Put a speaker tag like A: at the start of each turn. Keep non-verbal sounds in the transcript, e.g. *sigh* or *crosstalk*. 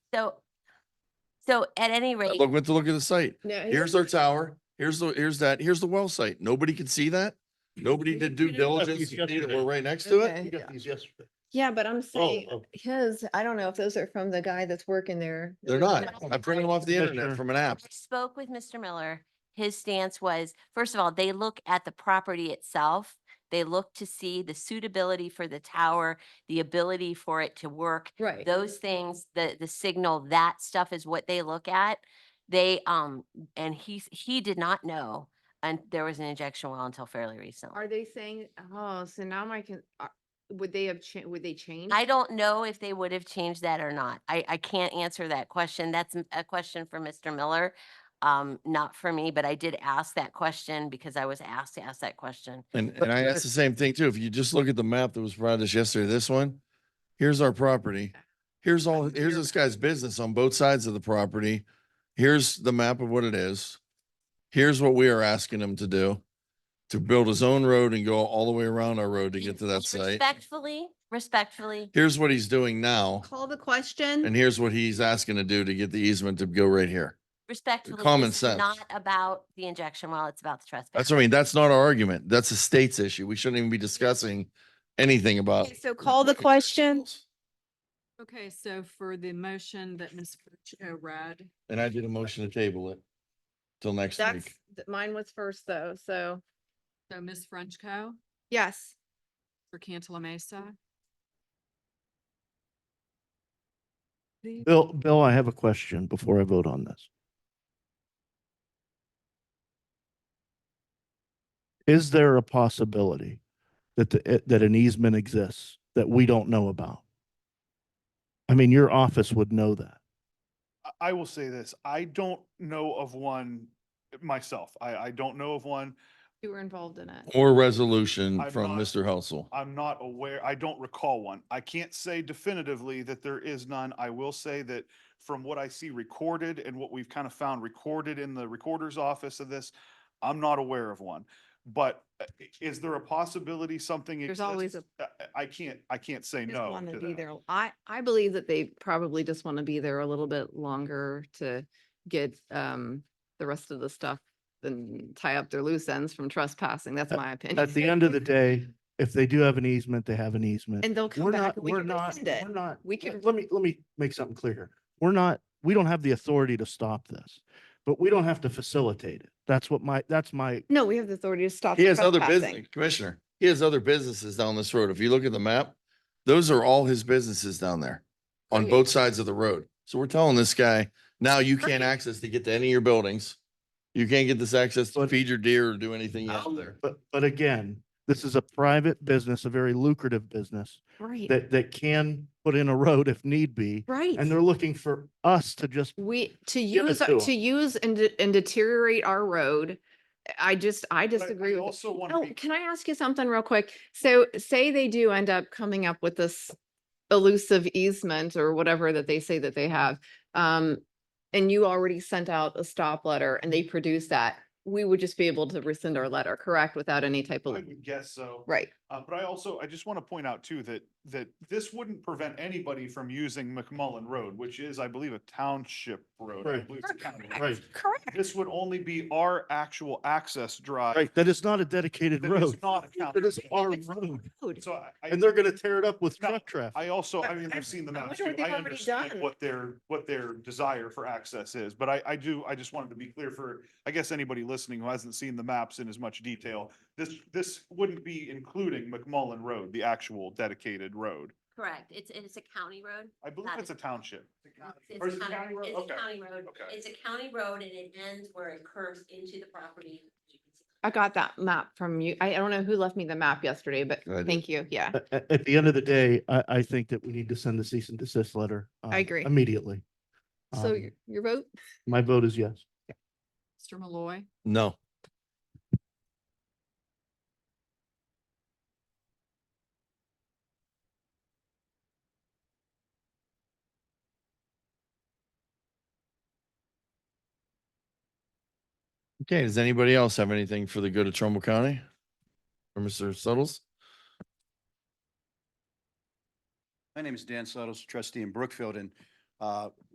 A: So, so at any
B: I
A: rate,
B: Look, went to look at the site.
C: No, his-
B: Here's our tower. Here's the, here's that, here's the well site. Nobody could see that. Nobody did due diligence. to see that We're right next to it.
C: Okay.
D: We got these yesterday.
C: Yeah, but I'm saying
D: oh.
C: his, I don't know if those are from the guy that's working there.
B: They're not. I printed them off the internet from an
A: I
B: app.
A: spoke with Mr. Miller. His stance was, first of all, they look at the property itself. They look to see the suitability for the tower, the ability for it to work.
C: Right.
A: Those things, the, the signal, that stuff is what they look at. They, um, and he, he did not know, and there was an injection well until fairly recently.
E: Are they saying, oh, so now my, con- are- would they have, cha- would they change?
A: I don't know if they would have changed that or not. I, I can't answer that question. That's m- a question for Mr. Miller. Um, not for me, but I did ask that question because I was asked to ask that question.
B: And, and I asked the same thing too. If you just look at the map that was provided us yesterday, this one, here's our property. Here's all, here's this guy's business on both sides of the property. Here's the map of what it is. Here's what we are asking him to do, to build his own road and go all the way around our road to
A: And-
B: get to that
A: and
B: site.
A: Respectfully, respectfully,
B: Here's what he's doing now,
C: Call the question.
B: and here's what he's asking to do to get the easement to go right here.
A: respectfully.
B: Uh, common
A: this is
B: sense.
A: Not about the injection well, it's about the trespass.
B: That's what I mean. That's not our argument. That's a state's issue. We shouldn't even be discussing anything about.
C: Okay, So call the question.
F: Okay, so for the motion that Ms. Frenchco read,
B: And I did a motion to table it till next
C: That's,
B: week.
C: th- mine was first though, so,
F: so Ms. Frenchco
C: yes.
F: for Cantala Mesa. The-
G: Bill, Bill, I have a question before I vote on this. Is there a possibility that the, eh, that an easement exists that we don't know about? I mean, your office would know that.
H: I- I will say this, I don't know of one myself. I, I don't know of one.
C: You were involved in it.
B: Or resolution
H: I'm
B: from
H: not-
B: Mr. Helsel.
H: I'm not aware, I don't recall one. I can't say definitively that there is none. I will say that from what I see recorded and what we've kind of found recorded in the recorder's office of this, I'm not aware of one. But uh, i- is there a possibility something
E: There's
H: exists?
E: always a-
H: I- I- I can't, I can't say
C: Just
H: no.
C: wanna
H: to
C: be
H: that.
C: there.
E: I, I believe that they probably just want to be there a little bit longer to get, um, the rest of the stuff and tie up their loose ends from trespassing. That's
G: At-
E: my opinion.
G: At the end of the day, if they do have an easement, they have an easement.
C: And they'll come
G: We're
C: back
G: not,
C: and we
G: we're
C: can
G: not,
C: rescind it.
G: we're not.
C: We
G: let-
C: can-
G: Let me, let me make something clear here. We're not, we don't have the authority to stop this, but we don't have to facilitate it. That's what my, that's my
C: No, we have the authority to stop.
B: He
C: the
B: has other
C: trespassing.
B: business, Commissioner, he has other businesses down this road. If you look at the map, those are all his businesses down there on
E: Right.
B: both sides of the road. So we're telling this guy, now you can't access to get to any of your buildings. You can't get this access to
G: But-
B: feed your deer or do anything out there.
G: But, but again, this is a private business, a very lucrative business
E: Right,
G: that, that can put in a road if need be.
E: right.
G: And they're looking for us to just,
E: We, to
G: Give it
E: use,
G: to
E: our-
G: 'em.
E: to use and de- and deteriorate our road, I just, I
H: But I-
E: disagree
H: I
E: with.
H: also want
E: Oh,
H: to be
E: can I ask you something real quick? So say they do end up coming up with this elusive easement or whatever that they say that they have. Um, and you already sent out a stop letter and they produce that, we would just be able to rescind our letter, correct? Without any type
H: I
E: of,
H: would guess so.
E: right?
H: Uh, but I also, I just want to point out too, that, that this wouldn't prevent anybody from using McMullen Road, which is, I believe, a township road. I
G: Right.
H: believe it's a county road.
G: right,
E: Correct.
H: This would only be our actual access drive.
G: right, that is not a dedicated
H: that is
G: road.
H: Not a county.
G: It is
H: road.
G: our road.
H: So I, I,
G: And they're going to tear it up with
H: No,
G: truck traffic.
H: I also, I
C: I-
H: mean,
C: I-
H: I've seen the
C: *laughs* I
H: maps
C: wonder what
H: too. I
C: they've already done.
H: understand what their, what their desire for access is, but I, I do, I just wanted to be clear for, I guess, anybody listening who hasn't seen the maps in as much detail. This, this wouldn't be including McMullen Road, the actual dedicated road.
A: Correct. It's, it's a county road.
H: I believe
A: Not
H: it's a township.
A: It's
H: Or is it
A: a county
H: county road?
A: it's a
H: Okay.
A: county road.
H: Okay.
A: It's a county road and it ends where it curves into the property.
E: I got that map from you. I I don't know who left me the map yesterday, but
B: I did.
E: thank you. Yeah.
G: At, at, the end of the day, I, I think that we need to send the cease and desist letter. um,
E: agree.
G: Immediately.
E: So
G: Um,
E: your, your vote?
G: My vote is yes.
F: Mr. Malloy,
B: No. Okay, does anybody else have anything for the good of Trumbull County? Or Mr. Suttles?
I: My name is Dan Suttles, trustee in Brookfield, and uh,